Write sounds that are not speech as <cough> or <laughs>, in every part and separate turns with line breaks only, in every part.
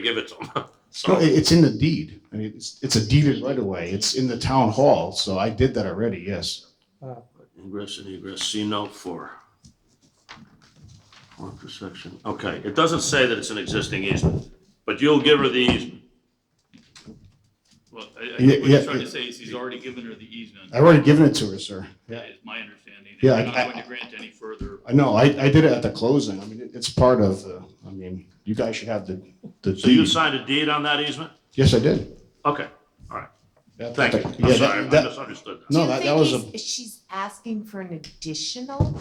give it to <laughs> them.
No, it-
So,
it's in the deed. I mean, it's, it's a deeded right away. It's in the town hall, so I did that already, yes.
ingress and egress, C note four. One per section, okay, it doesn't say that it's an existing easement, but you'll give her the easement.
Well, I, I
Yeah,
think what
yeah,
he's trying to
yeah.
say is he's already given her the easement,
I've already given it to her, sir. Yeah.
is my understanding. and
Yeah,
You're
I-
not going to grant any further.
I know, I, I did it at the closing. I mean, it- it's part of the, I mean, you guys should have the, the
So you
deed.
signed a deed on that easement?
Yes, I did.
Okay, all right,
That-
thank you.
that-
I'm
yeah, that-
sorry, I
that-
misunderstood that.
No,
Do you
that- that
think
was a-
he's- She's asking for an additional?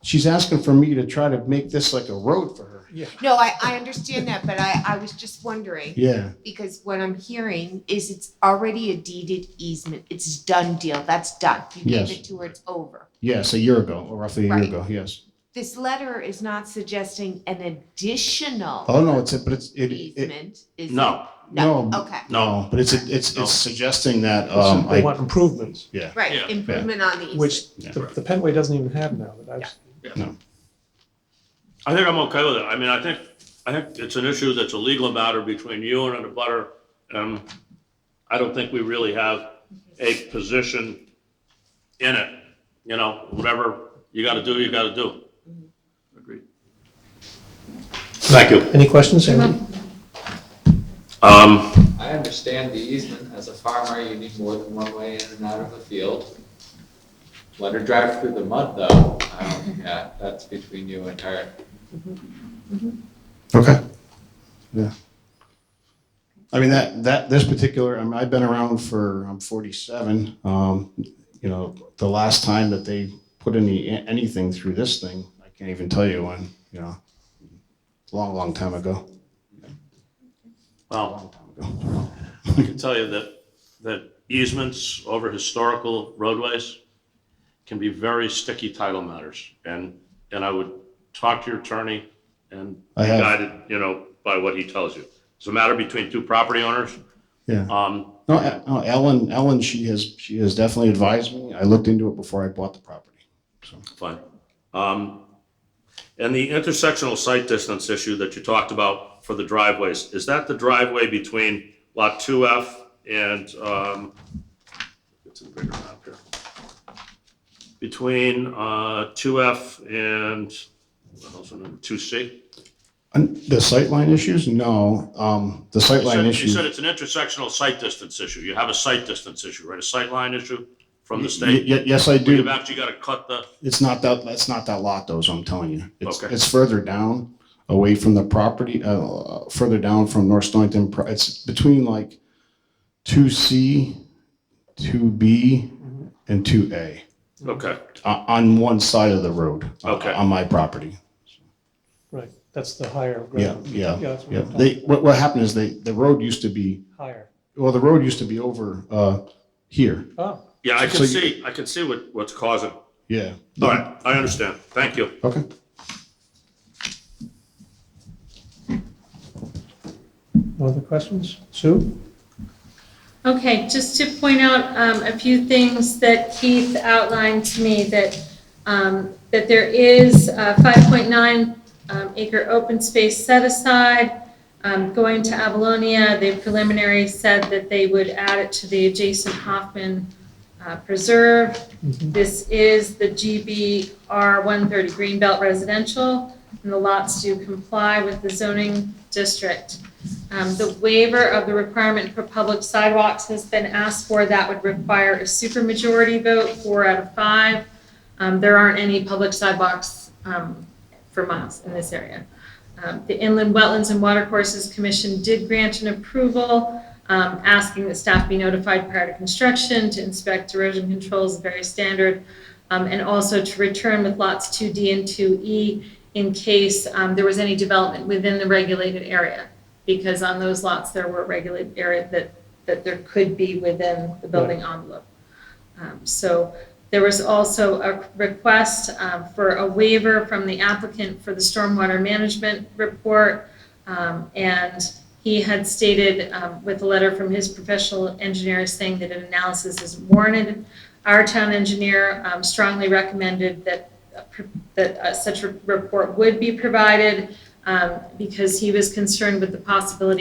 She's asking for me to try to make this like a road for her.
No, I, I understand that, but I, I was just wondering,
Yeah,
because what I'm hearing is it's already a deeded easement. It's done deal, that's done. You
Yes.
gave it to her, it's over.
yes, a year ago, or roughly a year
Right.
ago, yes.
This letter is not suggesting an additional
Oh, no, it's, a but it's, it, it,
easement, is it?
No,
no.
Okay,
no, but it's, a- it's,
No.
it's suggesting that, um,
They
I,
want improvements,
Yeah.
right, improvement on the easement.
which
Yeah.
the the Penway doesn't even have now. that I've-
I think I'm okay with it. I mean, I think, I think it's an issue that's a legal matter between you and the butter. Um, I don't think we really have a position in it, you know, whatever you gotta do, you gotta do.
Agreed.
Thank you.
Any questions, Andy?
Um,
I understand the easement, as a farmer, you need more than one way in and out of the field. Let her drive through the mud, though, um, yeah, that's between you and her.
Okay. Yeah. I mean, that, that, this particular, I mean, I've been around for, I'm 47. Um, you know, the last time that they put any, anything through this thing, I can't even tell you when, you know, long, long time ago.
well, I can tell you that, that easements over historical roadways can be very sticky title matters. And, and I would talk to your attorney and
I have.
guided, you know, by what he tells you. It's a matter between two property owners.
Yeah.
Um,
No, E- no, Ellen, Ellen, she has, she has definitely advised me. I looked into it before I bought the property.
fine. Um, and the intersectional site distance issue that you talked about for the driveways, is that the driveway between lot two F and, um, it's in the bigger map here. Between, uh, two F and, what else, two C?
And the sightline issues? No, um, the sightline
You
issues.
said it's an intersectional site distance issue. You have a site distance issue, right? A sight line issue from the
Y-
state?
y- Yes, I do.
You've actually got to cut the,
It's not that, it's not that lot though, so I'm telling you. It's,
Okay.
it's further down, away from the property, uh, further down from North Stonington. Pro- It's between like two C, two B, and two A, uh,
okay.
on one side of the road. uh,
Okay.
On my property.
Right, that's the higher
Yeah,
ground.
yeah,
that's what
yeah.
I'm talking
They, what, what happened is they, the road used to be,
about, Higher.
well, the road used to be over, uh, here.
Oh,
Yeah, I
So
can
you-
see, I can see what, what's causing.
Yeah.
All right, I understand. Thank you.
Okay.
no other questions? Sue?
Okay, just to point out um, a few things that Keith outlined to me, that, um, that there is uh, 5.9 um, acre open space set aside. Um, Going to Avalonia, they preliminary said that they would add it to the adjacent Hoffman uh, Preserve.
Mhm.
This is the GBR 130 Greenbelt Residential, and the lots do comply with the zoning district. Um, The waiver of the requirement for public sidewalks has been asked for. That would require a supermajority vote, four out of five. Um, There aren't any public sidewalks um, for miles in this area. Um, The Inland Wetlands and Watercourses Commission did grant an approval, um, asking that staff be notified prior to construction to inspect erosion controls, very standard, um, and also to return with lots 2D and 2E in case um, there was any development within the regulated area because on those lots, there were regulated area that, that there could be within the building envelope. Um, So there was also a request um, for a waiver from the applicant for the stormwater management report. Um, And he had stated um, with a letter from his professional engineer saying that an analysis is warranted. Our town engineer um, strongly recommended that, uh, pr- that uh, such a report would be provided um, because he was concerned with the possibility